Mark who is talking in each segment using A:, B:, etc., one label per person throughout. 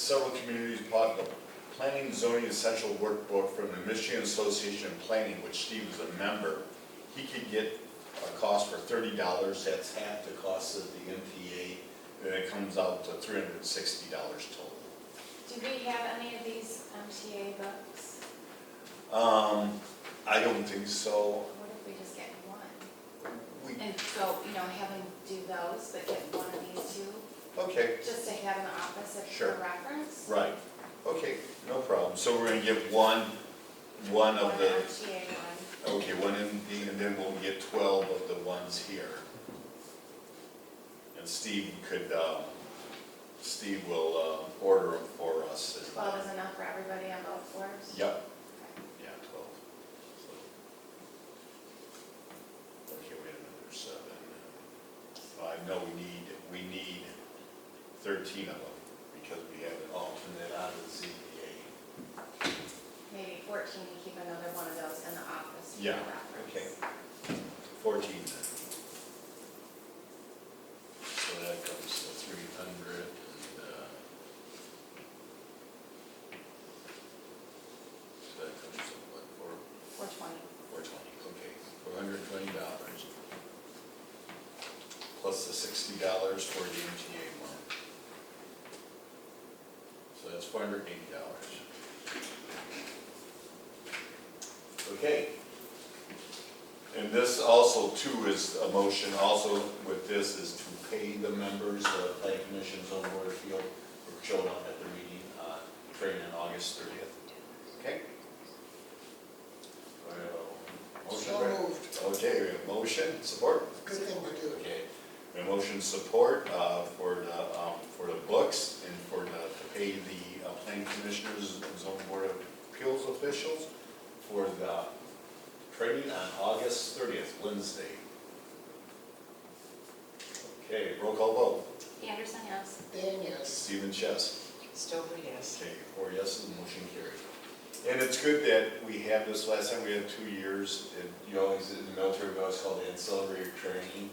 A: several communities bought the Planning and Zoning Essential Workbook from the Michigan Association of Planning, which Steve is a member. He could get a cost for thirty dollars, that's half the cost of the MPA, and it comes out to three hundred and sixty dollars total.
B: Do we have any of these MTA books?
A: Um, I don't think so.
B: What if we just get one?
A: We,
B: And so, you know, have them do those, but get one of these two,
A: okay,
B: just to have in the office if
A: Sure.
B: for reference?
A: right, okay, no problem. So we're gonna get one, one of the.
B: One MTA one.
A: Okay, one MD, and then we'll get twelve of the ones here. And Steve could, uh, Steve will, uh, order them for us. and-
B: Twelve is enough for everybody on both floors?
A: Yep,
B: Okay.
A: yeah, twelve. So- Okay, we had another seven. Five, no, we need, we need thirteen of them, because we have an alternate on the ZBA.
B: Maybe fourteen, to keep another one of those in the office for
A: Yeah,
B: reference.
A: okay. Fourteen then. So that comes to three hundred and, uh. So that comes to what, four,
B: Four twenty.
A: four twenty, okay, four hundred and twenty dollars. Plus the sixty dollars for the MTA one. So that's four hundred and eighty dollars. Okay. And this also too is a motion also with this is to pay the members of the planning commissions on Board of Field who showed up at the meeting, uh, training on August thirtieth. Okay? Well, Motion,
C: So
A: Brett?
C: moved.
A: Okay, we have motion, support?
C: Good thing to do.
A: Okay. We have motion support uh, for the, um, for the books and for the, to pay the uh, planning commissioners and zoning board of appeals officials for the training on August thirtieth, Wednesday. Okay, roll call vote.
B: Anderson, yes?
C: Dan, yes.
A: Stephen Chess.
C: Stover, yes.
A: Okay, four yeses, the motion carried. And it's good that we have this, last time we had two years, and you always, in the military, we always call it ancillary training,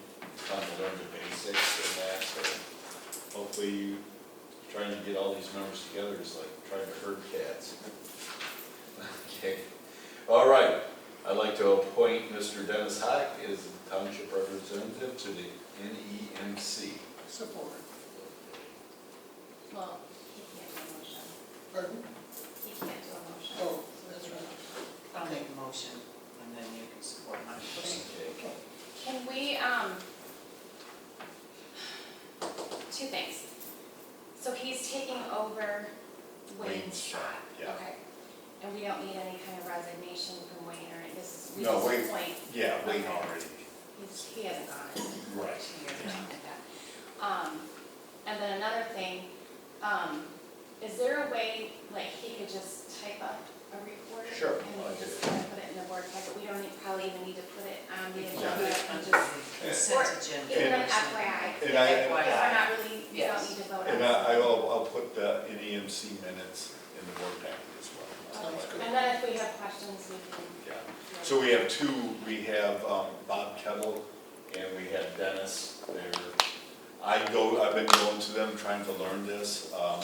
A: trying to learn the basics and that, so hopefully you, trying to get all these members together is like trying to herd cats. Okay, all right, I'd like to appoint Mr. Dennis Hock as the township representative to the E NEMC.
C: Support.
B: Well, he can't do a motion.
C: Pardon?
B: He can't do a motion.
C: Oh, that's right.
D: I'll make a motion, and then you can support my motion.
A: Okay,
B: Can we, um, two things. So he's taking over Wayne's
A: Wayne's
B: spot.
A: spot, yeah.
B: Okay. And we don't need any kind of resignation from Wayne or this is, we
A: No,
B: just
A: Wayne-
B: appoint.
A: Yeah, Wayne already.
B: He's, he hasn't gone in two
A: Right.
B: years or something like that. Um, and then another thing, um, is there a way, like, he could just type up a report?
A: Sure,
B: And
A: I'll
B: we
A: do
B: just
A: it.
B: kind of put it in the board packet, we don't need- probably even need to put it on the
D: We can
B: agenda
D: do it
B: and
D: under
B: just.
D: the consent agenda.
B: Even
D: or
B: an
D: something.
B: FYI.
A: And I-
B: Because we're not really, we don't
D: Yes.
B: need to vote on
A: And
B: it.
A: I, I will, I'll put the NEMC minutes in the board packet as well.
C: Sounds good.
B: And then if we have questions, we can.
A: Yeah, so we have two, we have um, Bob Kettle and we have Dennis there. I go, I've been going to them, trying to learn this. um,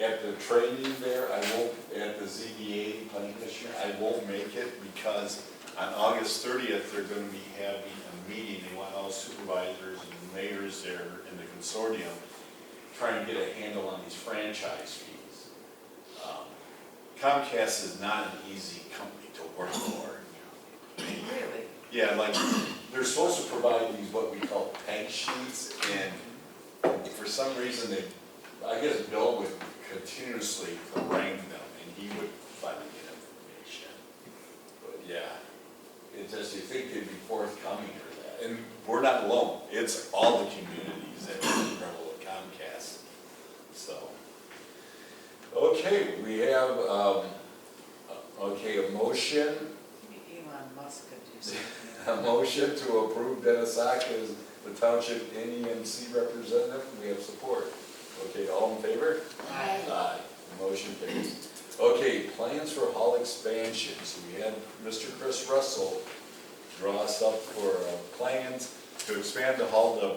A: At the training there, I won't, at the ZBA planning commission, I won't make it because on August thirtieth, they're gonna be having a meeting. They want all supervisors and mayors there in the consortium, trying to get a handle on these franchise fees. Um, Comcast is not an easy company to work for.
D: Really?
A: Yeah, like, they're supposed to provide these, what we call peg sheets, and for some reason, they, I guess Bill would continuously harangue them, and he would finally get information. But yeah, it just, you think they'd be forthcoming or that, and we're not alone, it's all the communities that struggle with Comcast, so. Okay, we have, um, okay, a motion
D: Maybe Elon Musk could do something.
A: a motion to approve Dennis Sack as the township NEMC representative, we have support. Okay, all in favor?
B: Aye.
A: Aye. Motion carries. Okay, plans for hall expansions, we had Mr. Chris Russell draw us up for uh, plans to uh, expand the hall to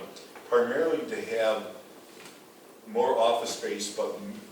A: primarily to have more office space, but m-